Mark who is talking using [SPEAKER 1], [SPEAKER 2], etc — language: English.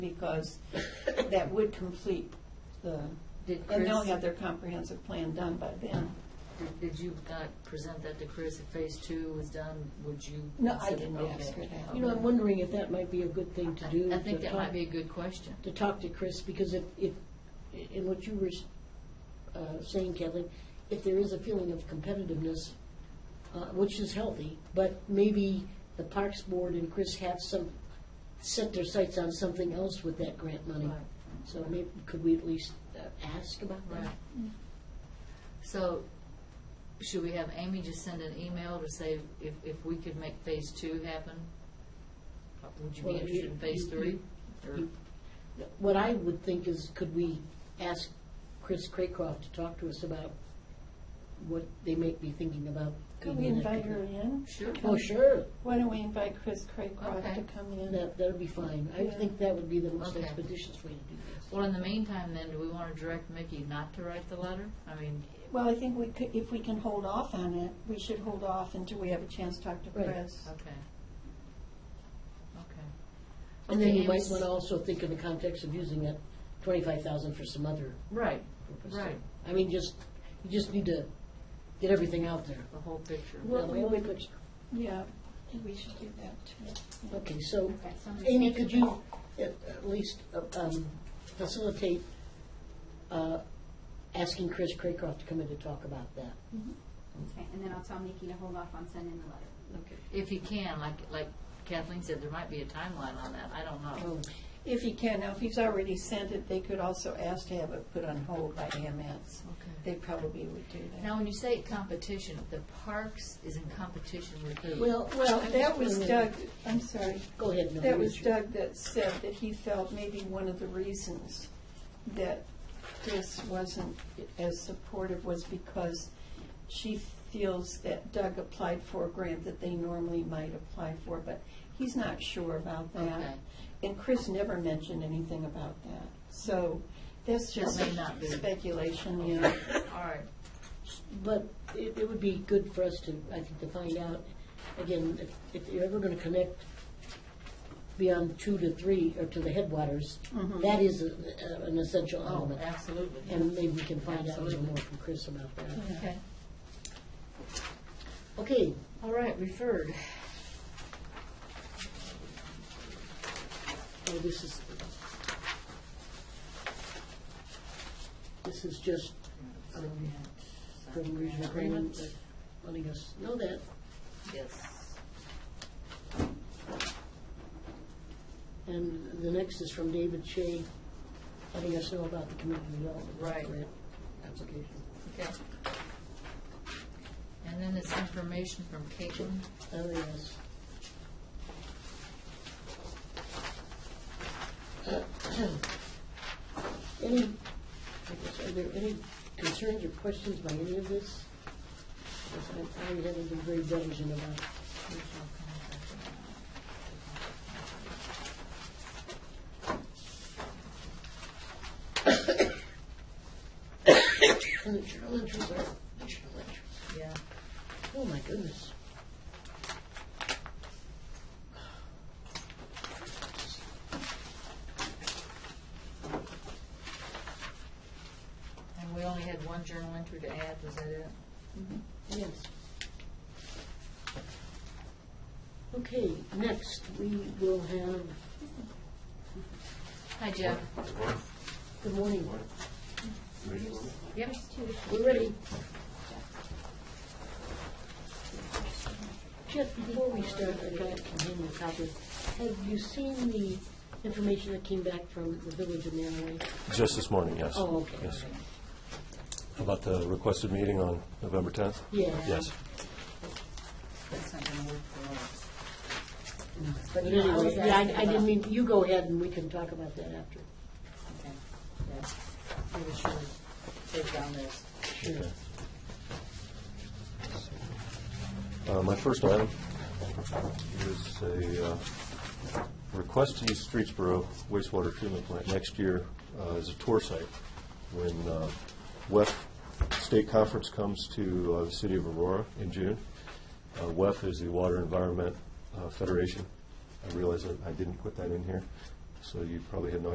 [SPEAKER 1] because that would complete the,
[SPEAKER 2] Did
[SPEAKER 1] and
[SPEAKER 2] Chris,
[SPEAKER 1] they'll have their comprehensive plan done by then.
[SPEAKER 2] did- did you not present that to Chris if phase two was done, would you?
[SPEAKER 1] No, I
[SPEAKER 2] consider-
[SPEAKER 1] didn't
[SPEAKER 2] okay.
[SPEAKER 1] ask her that.
[SPEAKER 3] You know, I'm wondering if that might be a good thing to do.
[SPEAKER 2] I I think
[SPEAKER 3] to
[SPEAKER 2] that might
[SPEAKER 3] talk-
[SPEAKER 2] be a good question.
[SPEAKER 3] To talk to Chris, because if, if, in what you were uh, saying, Kathleen, if there is a feeling of competitiveness, uh, which is healthy, but maybe the Parks Board and Chris have some, set their sights on something else with that grant money.
[SPEAKER 2] Right.
[SPEAKER 3] So maybe, could we at least uh, ask about that?
[SPEAKER 2] Right. So, should we have Amy just send an email to say if, if we could make phase two happen? Would you be
[SPEAKER 3] Well,
[SPEAKER 2] interested
[SPEAKER 3] you-
[SPEAKER 2] in phase
[SPEAKER 3] you-
[SPEAKER 2] three? Or-
[SPEAKER 3] you- What I would think is, could we ask Chris Craycroft to talk to us about what they might be thinking about?
[SPEAKER 1] Could we
[SPEAKER 3] being an
[SPEAKER 1] invite
[SPEAKER 3] active-
[SPEAKER 1] her in?
[SPEAKER 2] Sure.
[SPEAKER 3] Oh, sure,
[SPEAKER 1] Why don't we invite Chris Craycroft to
[SPEAKER 2] Okay.
[SPEAKER 1] come in?
[SPEAKER 3] that, that'd be fine. I
[SPEAKER 1] Yeah.
[SPEAKER 3] think that would be the most
[SPEAKER 2] Okay.
[SPEAKER 3] expeditious way to do this.
[SPEAKER 2] Well, in the meantime, then, do we want to direct Mickey not to write the letter? I mean,
[SPEAKER 1] Well, I think we could, if we can hold off on it, we should hold off until we have a chance to talk to
[SPEAKER 3] Right.
[SPEAKER 1] Chris.
[SPEAKER 2] okay. Okay.
[SPEAKER 3] And then
[SPEAKER 2] Okay,
[SPEAKER 3] you might
[SPEAKER 2] Amy's-
[SPEAKER 3] want to also think in the context of using that twenty-five thousand for some other
[SPEAKER 2] Right,
[SPEAKER 3] purpose.
[SPEAKER 2] right,
[SPEAKER 3] I mean, just, you just need to get everything out there.
[SPEAKER 2] the whole picture.
[SPEAKER 1] Well,
[SPEAKER 3] Now,
[SPEAKER 1] we
[SPEAKER 3] what-
[SPEAKER 1] Yeah, I think we should do that too.
[SPEAKER 3] Okay, so
[SPEAKER 4] Okay, so I'm just
[SPEAKER 3] Amy,
[SPEAKER 4] thinking
[SPEAKER 3] could you
[SPEAKER 4] about-
[SPEAKER 3] at at least uh, um, facilitate uh, asking Chris Craycroft to come in to talk about that?
[SPEAKER 4] Okay, and then I'll tell Nikki to hold off on sending the letter.
[SPEAKER 3] Okay.
[SPEAKER 2] If he can, like, like Kathleen said, there might be a timeline on that, I don't know.
[SPEAKER 1] If he can, now if he's already sent it, they could also ask to have it put on hold by AMS.
[SPEAKER 2] Okay.
[SPEAKER 1] They probably would do that.
[SPEAKER 2] Now, when you say competition, the parks is in competition with who?
[SPEAKER 3] Well,
[SPEAKER 1] Well,
[SPEAKER 3] I'm
[SPEAKER 1] that
[SPEAKER 3] just
[SPEAKER 1] was
[SPEAKER 3] wondering-
[SPEAKER 1] Doug, I'm sorry,
[SPEAKER 3] Go ahead, Mel.
[SPEAKER 1] that was
[SPEAKER 3] you-
[SPEAKER 1] Doug that said that he felt maybe one of the reasons that Chris wasn't as supportive was because she feels that Doug applied for a grant that they normally might apply for, but he's not sure about
[SPEAKER 2] Okay.
[SPEAKER 1] that. And Chris never mentioned anything about that. So that's
[SPEAKER 2] That
[SPEAKER 1] just
[SPEAKER 2] may not be.
[SPEAKER 1] speculation, you know.
[SPEAKER 2] All right,
[SPEAKER 3] But it, it would be good for us to, I think, to find out, again, if, if you're ever gonna connect beyond two to three, or to the headwaters, that is a- a- an essential
[SPEAKER 2] oh,
[SPEAKER 3] element.
[SPEAKER 2] absolutely.
[SPEAKER 3] And maybe we can find out a little
[SPEAKER 2] Absolutely.
[SPEAKER 3] more from Chris about that.
[SPEAKER 2] Okay,
[SPEAKER 3] Okay,
[SPEAKER 2] all right, referred.
[SPEAKER 3] well, Oh, this is, this is just Um, from regional agreement, that letting us know that.
[SPEAKER 2] Yes.
[SPEAKER 3] And the next is from David Shea, letting us know about the community development.
[SPEAKER 2] Right.
[SPEAKER 3] grant Application.
[SPEAKER 2] Okay. And then it's information from Caitlin.
[SPEAKER 3] Oh, yes. Any, I guess, are there any concerns or questions by any of this? Because I I haven't been very diligent about And the journal entries are, the journal entries.
[SPEAKER 2] Yeah.
[SPEAKER 3] Oh, my goodness.
[SPEAKER 2] And we only had one journal entry to add, was that it?
[SPEAKER 3] Yes. Okay, next, we will have,
[SPEAKER 2] Hi, Jeff.
[SPEAKER 3] good morning,
[SPEAKER 2] Yep.
[SPEAKER 3] we're ready. Jeff, before we start, I got to hand you a copy. Have you seen the information that came back from the village of Manaway?
[SPEAKER 5] Just this morning, yes.
[SPEAKER 3] Oh, okay.
[SPEAKER 5] Yes. About the requested meeting on November 10th?
[SPEAKER 3] Yeah.
[SPEAKER 5] Yes.
[SPEAKER 2] That's not gonna work for us.
[SPEAKER 3] But
[SPEAKER 2] you know, I
[SPEAKER 3] anyway,
[SPEAKER 2] was
[SPEAKER 3] yeah,
[SPEAKER 2] asking
[SPEAKER 3] I I didn't
[SPEAKER 2] about-
[SPEAKER 3] mean, you go ahead and we can talk about that after.
[SPEAKER 2] Okay. Yeah. We should take down this.
[SPEAKER 3] Sure.
[SPEAKER 5] Uh, My first item is a uh, request to use Streetsboro wastewater treatment plant next year uh, as a tour site when uh, WEF State Conference comes to uh, the city of Aurora in June. Uh, WEF is the Water Environment uh, Federation. I realize that I didn't put that in here. So you probably have no